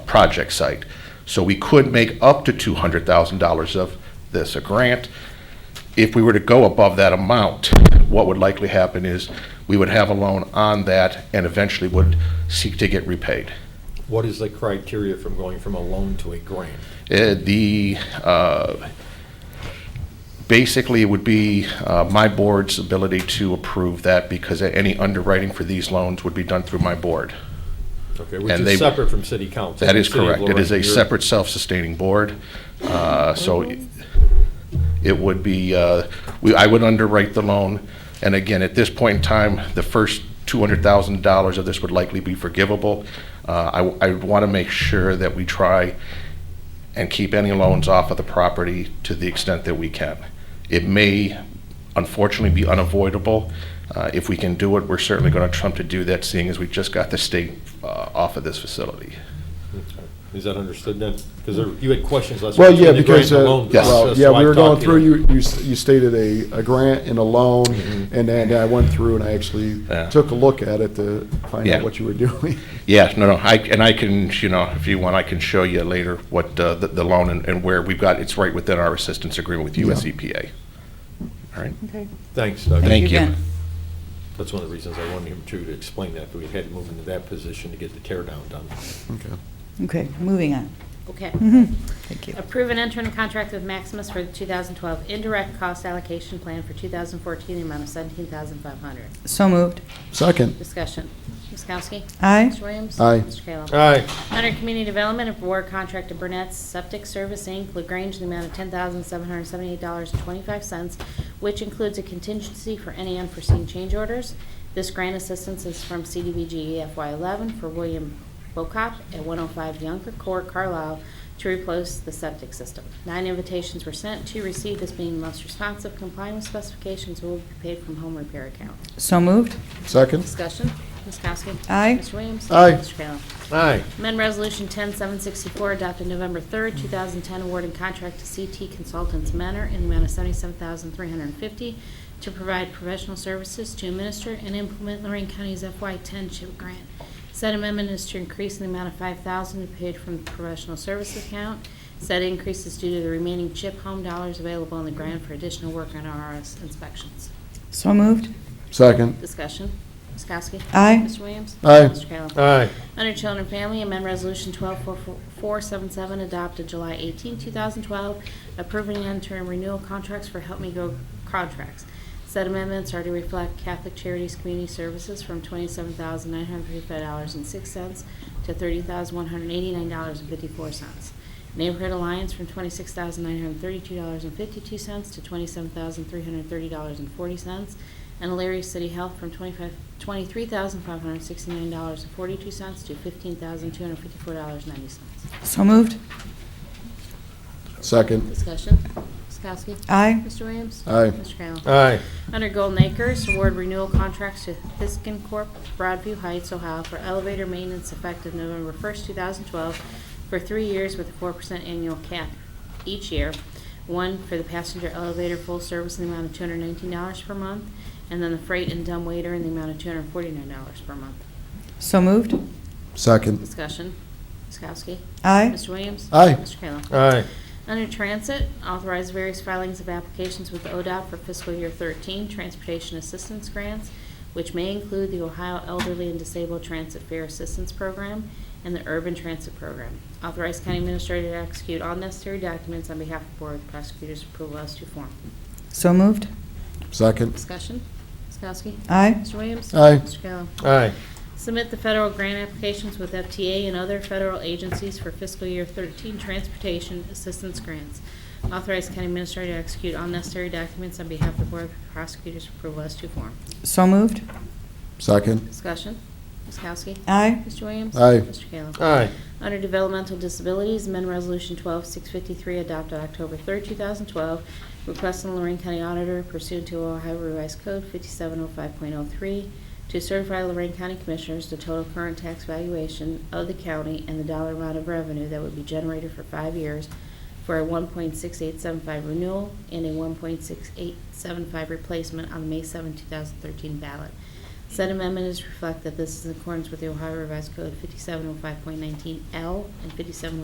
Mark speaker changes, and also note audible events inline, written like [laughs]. Speaker 1: project site. So we could make up to two hundred thousand dollars of this a grant. If we were to go above that amount, what would likely happen is we would have a loan on that and eventually would seek to get repaid.
Speaker 2: What is the criteria from going from a loan to a grant?
Speaker 1: Uh, The, uh, basically, it would be uh, my board's ability to approve that because any underwriting for these loans would be done through my board.
Speaker 2: Okay, which
Speaker 1: And they-
Speaker 2: is separate from city council.
Speaker 1: That is
Speaker 2: City of
Speaker 1: correct. It is
Speaker 2: Lorraine,
Speaker 1: a
Speaker 2: you're-
Speaker 1: separate, self-sustaining board. Uh, So it would be, uh, we- I would underwrite the loan. And again, at this point in time, the first $200,000 of this would likely be forgivable. Uh, I want to make sure that we try and keep any loans off of the property to the extent that we can. It may unfortunately be unavoidable. Uh, If we can do it, we're certainly going to trump to do that, seeing as we just got the state uh, off of this facility.
Speaker 2: Is that understood then? Because you had questions last week.
Speaker 3: Well, yeah,
Speaker 2: between the grant
Speaker 3: because,
Speaker 2: and the
Speaker 3: uh,
Speaker 2: loan
Speaker 1: Yes.
Speaker 3: well,
Speaker 2: process,
Speaker 3: yeah,
Speaker 2: so I
Speaker 3: we were
Speaker 2: talked
Speaker 3: going
Speaker 2: to
Speaker 3: through, you, you s- you stated a, a grant and a loan,
Speaker 2: Mm-hmm.
Speaker 3: and then I went through and I actually
Speaker 1: Yeah.
Speaker 3: took a look at it to find
Speaker 1: Yeah.
Speaker 3: out what you were [laughs] doing.
Speaker 1: Yeah, no, no, I, and I can, you know, if you want, I can show you later what, uh, the, the loan and, and where we've got, it's right within our assistance agreement with US
Speaker 3: Yeah.
Speaker 1: EPA. All right,
Speaker 4: Okay.
Speaker 2: Thanks, Doug.
Speaker 1: Thank you.
Speaker 4: Ben.
Speaker 2: That's one of the reasons I wanted him to, to explain that, but we had to move into that position to get the tear down done.
Speaker 3: Okay.
Speaker 4: Okay, moving on. [laughs]
Speaker 5: Okay.
Speaker 4: Thank you.
Speaker 5: Approve and enter into contract with Maximus for the 2012 indirect cost allocation plan for 2014, the amount of 17500
Speaker 4: So moved.
Speaker 3: Second,
Speaker 5: Discussion. Ms. Kowski?
Speaker 4: Aye.
Speaker 5: Mr. Williams?
Speaker 3: Aye.
Speaker 5: Mr. Kayla?
Speaker 2: Aye.
Speaker 5: Under Community Development, award contract to Burnett's Septic Service, Inc., LaGrange, in the amount of $10,778.25, which includes a contingency for any unforeseen change orders. This grant assistance is from CDBG FY11 for William Bocop at 105 Younger Court, Carlisle, to replace the septic system. Nine invitations were sent, two received as being the most responsive, complying with specifications, will be paid from home repair account.
Speaker 4: So moved.
Speaker 3: second,
Speaker 5: Discussion, Ms. Kowski.
Speaker 4: Aye.
Speaker 5: Mr. Williams.
Speaker 3: Aye.
Speaker 5: Mr. Kayla.
Speaker 2: Aye.
Speaker 5: Amend Resolution 10764 adopted November 3rd, 2010, awarding contract to CT Consultants Manor in the amount of 77350 to provide professional services to administer and implement Lorraine County's FY10 CHIP grant. Said amendment is to increase the amount of 5000 to be paid from the professional services account. Said increase is due to the remaining CHIP home dollars available in the grant for additional work on RS inspections.
Speaker 4: So moved.
Speaker 3: second,
Speaker 5: Discussion. Ms. Kowski.
Speaker 4: Aye.
Speaker 5: Mr. Williams.
Speaker 3: Aye.
Speaker 5: Mr. Kayla.
Speaker 2: Aye.
Speaker 5: Under Children and Family, amend Resolution 12477 adopted July 18, 2012, approving interim renewal contracts for Help Me Go contracts. Said amendments are to reflect Catholic Charities Community Services from $27,935.06 to $30,189.54. Neighborhood Alliance from $26,932.52 to $27,330.40 and Alariah City Health from 25 $23,569.42 to $15,254.90.
Speaker 4: So moved.
Speaker 3: second,
Speaker 5: Discussion, Ms. Kowski.
Speaker 4: Aye.
Speaker 5: Mr. Williams.
Speaker 3: Aye.
Speaker 5: Mr. Kayla.
Speaker 2: Aye.
Speaker 5: Under Golden Acres, award renewal contracts to Fiskin Corp., Broadview Heights, Ohio for elevator maintenance effective November 1st, 2012, for three years with a 4% annual cap each year. One for the passenger elevator full service in the amount of $219 per month, and then the freight and dumb waiter in the amount of $249 per month.
Speaker 4: So moved.
Speaker 3: second,
Speaker 5: Discussion. Ms. Kowski.
Speaker 4: Aye.
Speaker 5: Mr. Williams.
Speaker 3: Aye.
Speaker 5: Mr. Kayla.
Speaker 2: Aye.
Speaker 5: Under Transit, authorize various filings of applications with ODOT for fiscal year 13 transportation assistance grants, which may include the Ohio Elderly and Disabled Transit Fair Assistance Program and the Urban Transit Program. Authorize county administrator to execute all necessary documents on behalf of Board of Prosecutors' approval as to form.
Speaker 4: So moved.
Speaker 3: second,
Speaker 5: Discussion. Ms. Kowski.
Speaker 4: Aye.
Speaker 5: Mr. Williams.
Speaker 3: Aye.
Speaker 5: Mr. Kayla.
Speaker 2: Aye.
Speaker 5: Submit the federal grant applications with FTA and other federal agencies for fiscal year 13 transportation assistance grants. Authorize county administrator to execute all necessary documents on behalf of the Board of Prosecutors' approval as to form.
Speaker 4: So moved.
Speaker 3: second,
Speaker 5: Discussion. Ms. Kowski.
Speaker 4: Aye.
Speaker 5: Mr. Williams.
Speaker 3: Aye.
Speaker 5: Mr. Kayla.
Speaker 2: Aye.
Speaker 5: Under Developmental Disabilities, amend Resolution 12653 adopted October 3, 2012, requesting Lorraine County Auditor pursuant to Ohio Revised Code 5705.03 to certify Lorraine County Commissioners the total current tax valuation of the county and the dollar amount of revenue that would be generated for five years for a 1.6875 renewal and a 1.6875 replacement on the May 7, 2013 ballot. Said amendment oh is to reflect that this is in accordance with the Ohio Revised Code 5705.19L and 5705.19